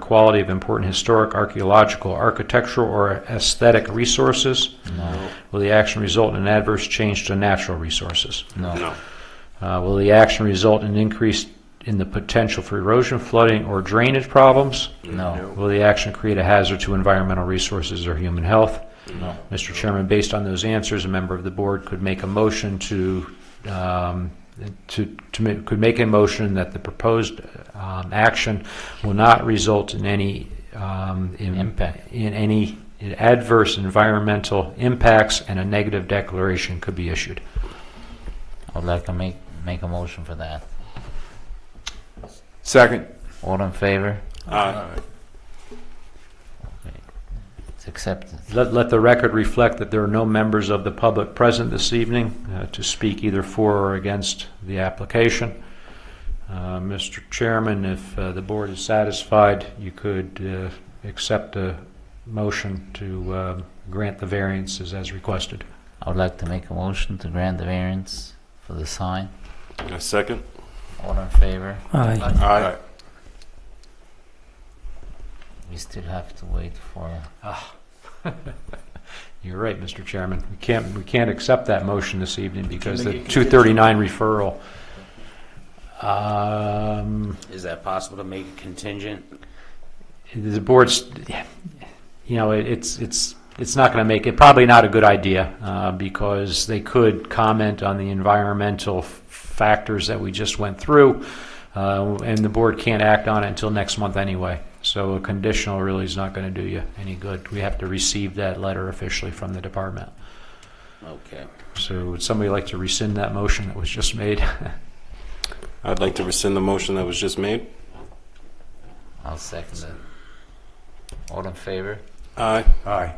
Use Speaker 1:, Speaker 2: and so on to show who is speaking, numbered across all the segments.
Speaker 1: quality of important historic, archaeological, architectural, or aesthetic resources?
Speaker 2: No.
Speaker 1: Will the action result in an adverse change to natural resources?
Speaker 2: No.
Speaker 3: No.
Speaker 1: Uh, Will the action result in increase in the potential for erosion, flooding, or drainage problems?
Speaker 2: No.
Speaker 1: Will the action create a hazard to environmental resources or human health?
Speaker 2: No.
Speaker 1: Mr. Chairman, based on those answers, a member of the board could make a motion to, um, to, to, ma- could make a motion that the proposed um, action will not result in any, um, in-
Speaker 2: Impact.
Speaker 1: In any adverse environmental impacts, and a negative declaration could be issued.
Speaker 2: I'd like to make, make a motion for that.
Speaker 4: Second.
Speaker 2: All in favor?
Speaker 3: Aye.
Speaker 2: It's accepted.
Speaker 1: Let, let the record reflect that there are no members of the public present this evening uh, to speak either for or against the application. Uh, Mr. Chairman, if uh, the board is satisfied, you could uh, accept a motion to um, grant the variances as requested.
Speaker 2: I would like to make a motion to grant the variance for the sign.
Speaker 3: A second?
Speaker 2: All in favor?
Speaker 5: Aye.
Speaker 3: Aye.
Speaker 2: We still have to wait for,
Speaker 1: You're right, Mr. Chairman. We can't, we can't accept that motion this evening because the 239 referral. Um,
Speaker 6: Is that possible to make a contingent?
Speaker 1: the board's, you know, it- it's, it's, it's not going to make, it probably not a good idea, uh, because they could comment on the environmental f- factors that we just went through, uh, and the board can't act on it until next month anyway. So a conditional really is not going to do you any good. We have to receive that letter officially from the department.
Speaker 6: Okay.
Speaker 1: So would somebody like to rescind that motion that was just made?
Speaker 3: I'd like to rescind the motion that was just made.
Speaker 2: I'll second it. All in favor?
Speaker 3: Aye.
Speaker 4: Aye.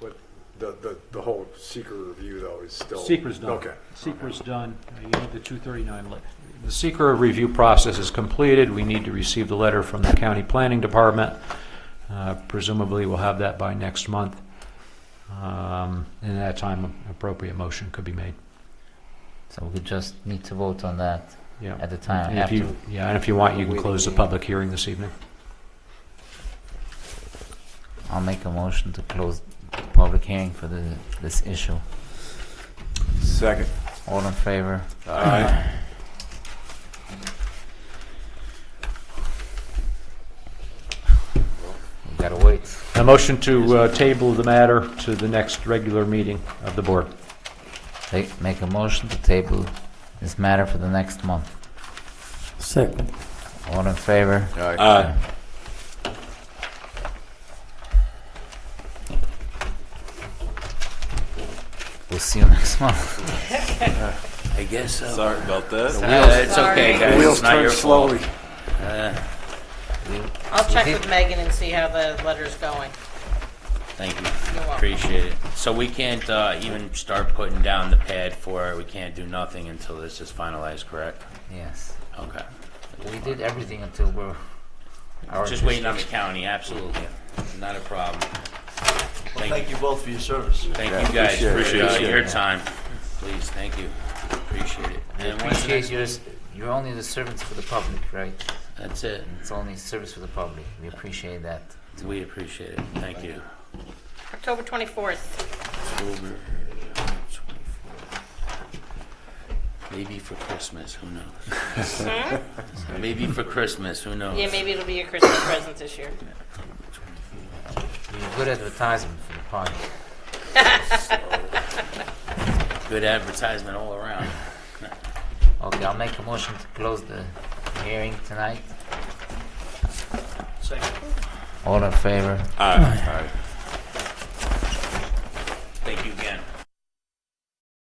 Speaker 7: But the, the, the whole seeker review though is still.
Speaker 1: Secret's done.
Speaker 7: Okay.
Speaker 1: Secret's done, you need the 239 letter. The secret review process is completed, we need to receive the letter from the county planning department. Uh, Presumably, we'll have that by next month. Um, And at that time, an appropriate motion could be made.
Speaker 2: So we just need to vote on that
Speaker 1: Yeah.
Speaker 2: at the time
Speaker 1: And if
Speaker 2: after.
Speaker 1: you, yeah, and if you want, you can close the public hearing this evening.
Speaker 2: I'll make a motion to close the public hearing for the, this issue.
Speaker 4: Second.
Speaker 2: All in favor?
Speaker 3: Aye.
Speaker 2: We gotta wait.
Speaker 1: A motion to uh, table the matter to the next regular meeting of the board.
Speaker 2: Take, make a motion to table this matter for the next month.
Speaker 5: Second.
Speaker 2: All in favor?
Speaker 3: Aye.
Speaker 2: We'll see you next month.
Speaker 6: I guess so.
Speaker 3: Sorry about that.
Speaker 6: Uh, it's okay, guys.
Speaker 4: Wheels
Speaker 6: it's not
Speaker 4: turn
Speaker 6: your fault.
Speaker 4: slowly.
Speaker 8: I'll check with Megan and see how the letter's going.
Speaker 6: Thank you.
Speaker 8: You're welcome.
Speaker 6: Appreciate it. So we can't uh, even start putting down the pad for it. We can't do nothing until this is finalized, correct?
Speaker 2: Yes.
Speaker 6: Okay.
Speaker 2: We did everything until we're. our-
Speaker 6: Just waiting on the county, absolutely. Not a problem. Thank you both for your service. Thank you
Speaker 4: appreciate
Speaker 6: guys
Speaker 4: it.
Speaker 6: for
Speaker 3: Appreciate
Speaker 6: uh, your
Speaker 2: it.
Speaker 6: time. Please, thank you. Appreciate it.
Speaker 2: I
Speaker 6: And when's the
Speaker 2: Appreciate
Speaker 6: next-
Speaker 2: your, s- you're only the servants for the public, right?
Speaker 6: That's it.
Speaker 2: It's only service for the public. We appreciate that.
Speaker 6: We appreciate it. Thank you.
Speaker 8: October 24th.
Speaker 6: October 24th. Maybe for Christmas, who knows? Maybe for Christmas, who knows?
Speaker 8: Yeah, maybe it'll be your Christmas present this year.
Speaker 2: You're a good advertisement for the party.
Speaker 6: Good advertisement all around.
Speaker 2: Okay, I'll make a motion to close the hearing tonight. All in favor?
Speaker 3: Aye.